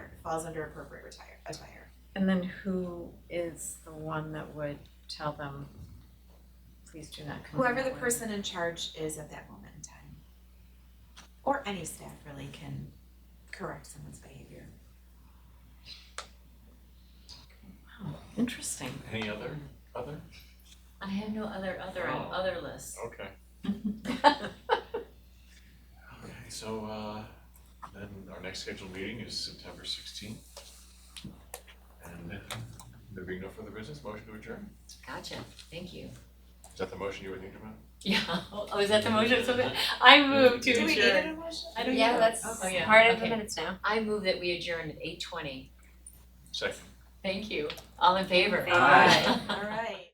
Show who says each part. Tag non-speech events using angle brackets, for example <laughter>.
Speaker 1: falls under appropriate retire, attire.
Speaker 2: And then who is the one that would tell them, please do not come in
Speaker 1: Whoever
Speaker 2: that
Speaker 1: the
Speaker 2: way"?
Speaker 1: person in charge is at that moment in time. Or any staff really can correct someone's behavior.
Speaker 2: Wow, Oh, interesting.
Speaker 3: Any other, other?
Speaker 4: I have no other other
Speaker 3: Oh.
Speaker 4: other list.
Speaker 3: Okay. Okay, so uh, then our next scheduled meeting is September sixteenth. And uh, there being no further business, motion to adjourn?
Speaker 4: Gotcha. Thank you.
Speaker 3: Is that the motion you were thinking about?
Speaker 4: <laughs> Yeah. Oh, is that the motion? So <laughs> I move to
Speaker 1: Do we need
Speaker 4: adjourn.
Speaker 1: an emotion?
Speaker 4: I don't
Speaker 2: Yeah,
Speaker 4: know.
Speaker 2: that's
Speaker 4: Oh, yeah.
Speaker 2: part of the
Speaker 4: Okay.
Speaker 2: minutes now.
Speaker 4: I move that we adjourn at eight twenty.
Speaker 3: Second.
Speaker 4: Thank you. All in favor?
Speaker 2: Aye.
Speaker 4: <laughs>
Speaker 1: All right.